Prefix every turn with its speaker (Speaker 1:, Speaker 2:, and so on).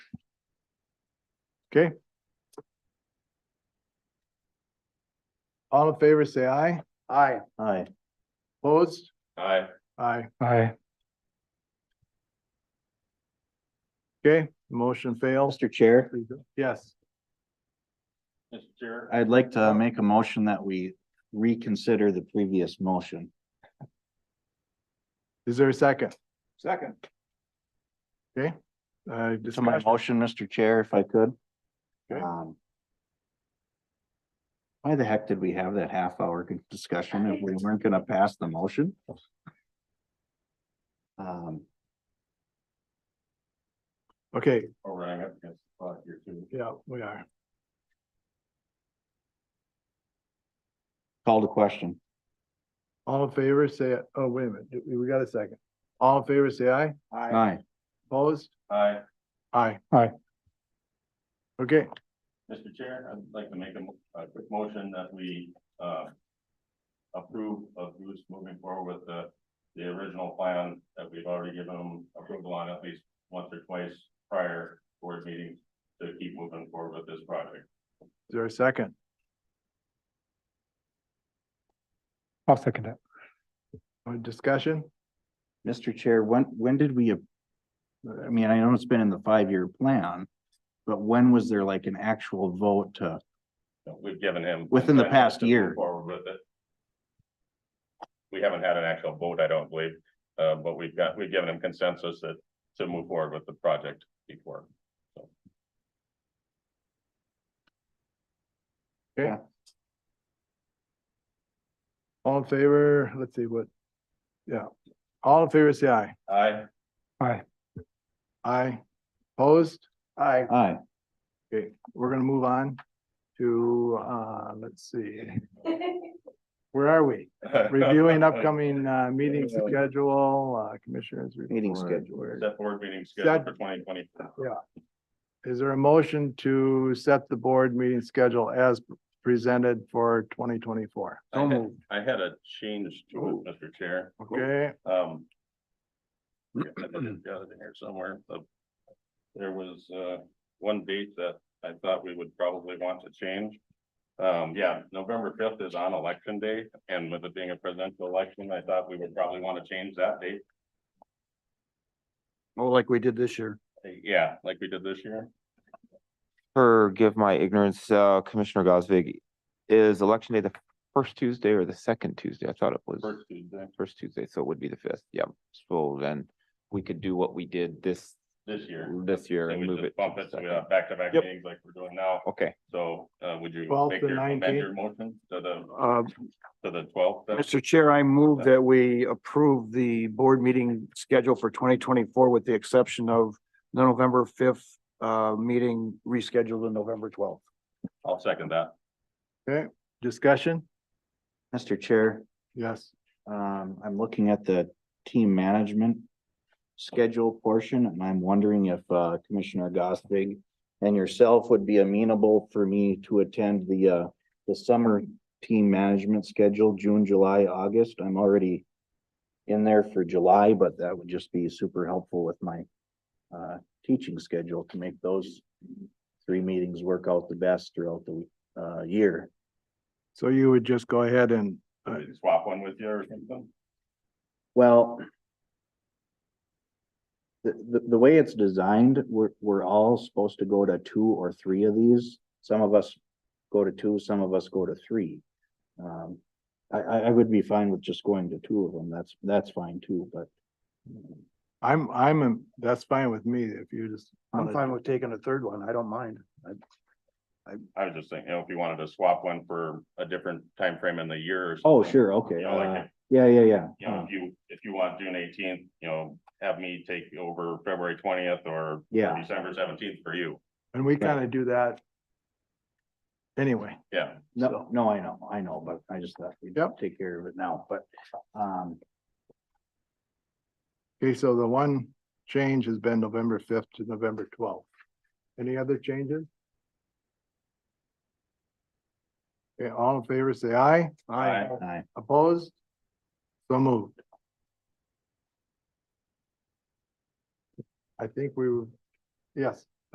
Speaker 1: Okay. All in favor, say aye.
Speaker 2: Aye.
Speaker 1: Aye. Opposed?
Speaker 2: Aye.
Speaker 1: Aye.
Speaker 3: Aye.
Speaker 1: Okay, motion fails.
Speaker 4: Mr. Chair,
Speaker 1: Yes,
Speaker 2: Mr. Chair.
Speaker 4: I'd like to make a motion that we reconsider the previous motion.
Speaker 1: is there a second?
Speaker 2: Second.
Speaker 1: Uh,
Speaker 4: To my
Speaker 1: discussion?
Speaker 4: motion, Mr. Chair, if I could.
Speaker 1: Okay.
Speaker 4: Um, Why the heck did we have that half hour discussion if we weren't gonna pass the motion? Um,
Speaker 1: Okay,
Speaker 2: We're running up against the clock here too.
Speaker 1: yeah, we are.
Speaker 4: call to question.
Speaker 1: All in favor, say, oh, wait a minute, we we got a second. All in favor, say aye.
Speaker 4: Aye.
Speaker 1: Opposed?
Speaker 2: Aye.
Speaker 1: Aye.
Speaker 3: Aye.
Speaker 1: Okay,
Speaker 2: Mr. Chair, I'd like to make a, mo- a quick motion that we, uh, approve of Bruce moving forward with the, the original plan that we've already given him approval on at least once or twice prior board meetings to keep moving forward with this project.
Speaker 1: is there a second?
Speaker 3: I'll second that.
Speaker 1: Uh, Discussion?
Speaker 4: Mr. Chair, when, when did we? ap- I mean, I know it's been in the five-year plan, but when was there like an actual vote to?
Speaker 2: So We've given him.
Speaker 4: Within the
Speaker 2: consent
Speaker 4: past
Speaker 2: to move
Speaker 4: year.
Speaker 2: Forward with it. We haven't had an actual vote, I don't believe, uh, but we've got, we've given him consensus that, to move forward with the project before.
Speaker 1: All in favor, let's see what, yeah, all in favor, say aye.
Speaker 2: Aye.
Speaker 3: Aye.
Speaker 1: Aye. Opposed? Aye.
Speaker 4: Aye.
Speaker 1: Okay, we're gonna move on to, uh, let's see. Where are we? Reviewing upcoming, uh, meeting schedule, uh, commissioners.
Speaker 4: Meeting
Speaker 1: report.
Speaker 2: Set board meeting scheduled for twenty twenty.
Speaker 1: Is there a motion to set the board meeting schedule as presented for twenty twenty-four?
Speaker 2: I had, I had a change to it, Mr. Chair.
Speaker 1: Okay,
Speaker 2: Um. yeah, I think I've Got it in here somewhere, but there was, uh, one date that I thought we would probably want to change. Um, yeah, November fifth is on election day, and with it being a presidential election, I thought we would probably want to change that date.
Speaker 5: Oh, like we did this year.
Speaker 2: Yeah, like we did this year.
Speaker 6: Forgive my ignorance, uh, Commissioner Gosvig, is election day the first Tuesday or the second Tuesday? I thought it was
Speaker 2: First Tuesday
Speaker 6: first Tuesday, so it would be the fifth. Yep. So then we could do what we did this,
Speaker 2: this year.
Speaker 6: this year
Speaker 2: They
Speaker 6: and
Speaker 2: would
Speaker 6: move
Speaker 2: just
Speaker 6: it. to
Speaker 2: Bump
Speaker 6: the
Speaker 2: it to
Speaker 6: second.
Speaker 2: uh, back-to-back
Speaker 5: Yep.
Speaker 2: meetings like we're doing now.
Speaker 6: Okay,
Speaker 2: So, uh, would you
Speaker 1: 12th
Speaker 2: make
Speaker 1: to
Speaker 2: your, amend
Speaker 1: 19th?
Speaker 2: your motion to the,
Speaker 5: Uh,
Speaker 2: to the twelfth?
Speaker 5: Mr. Chair, I move that we approve the board meeting schedule for twenty twenty-four with the exception of the November fifth uh meeting rescheduled to November twelfth.
Speaker 2: I'll second that.
Speaker 1: discussion?
Speaker 4: Mr. Chair,
Speaker 1: Yes.
Speaker 4: um, I'm looking at the team management schedule portion, and I'm wondering if, uh, Commissioner Gosvig and yourself would be amenable for me to attend the, uh, the summer team management schedule, June, July, August. I'm already in there for July, but that would just be super helpful with my, uh, teaching schedule to make those three meetings work out the best throughout the, uh, year.
Speaker 1: So you would just go ahead and, uh,
Speaker 2: Did you Swap one with you or something?
Speaker 4: Well. The, the, the way it's designed, we're, we're all supposed to go to two or three of these. Some of us go to two, some of us go to three. Um, I, I, I would be fine with just going to two of them. That's, that's fine too, but.
Speaker 1: I'm, I'm, that's fine with me if you just.
Speaker 5: I'm fine with taking a third one. I don't mind.
Speaker 2: I was just thinking, you know, if you wanted to swap one for a different time frame in the year or something.
Speaker 4: Oh, sure, okay.
Speaker 2: You know, like,
Speaker 4: uh, Yeah, yeah, yeah.
Speaker 2: you know,
Speaker 4: uh,
Speaker 2: if you, if you want June eighteenth, you know, have me take over February twentieth or
Speaker 4: Yeah.
Speaker 2: December seventeenth for you.
Speaker 1: And we kind of do that. Anyway,
Speaker 2: Yeah,
Speaker 4: No, no, I know, I know, but I just thought we'd
Speaker 1: Yep.
Speaker 4: take care of it now, but, um,
Speaker 1: okay, so the one change has been November fifth to November twelfth. Any other changes? Okay, all in favor, say aye.
Speaker 2: Aye.
Speaker 4: I,
Speaker 1: Opposed? So moved. I think we, were- yes,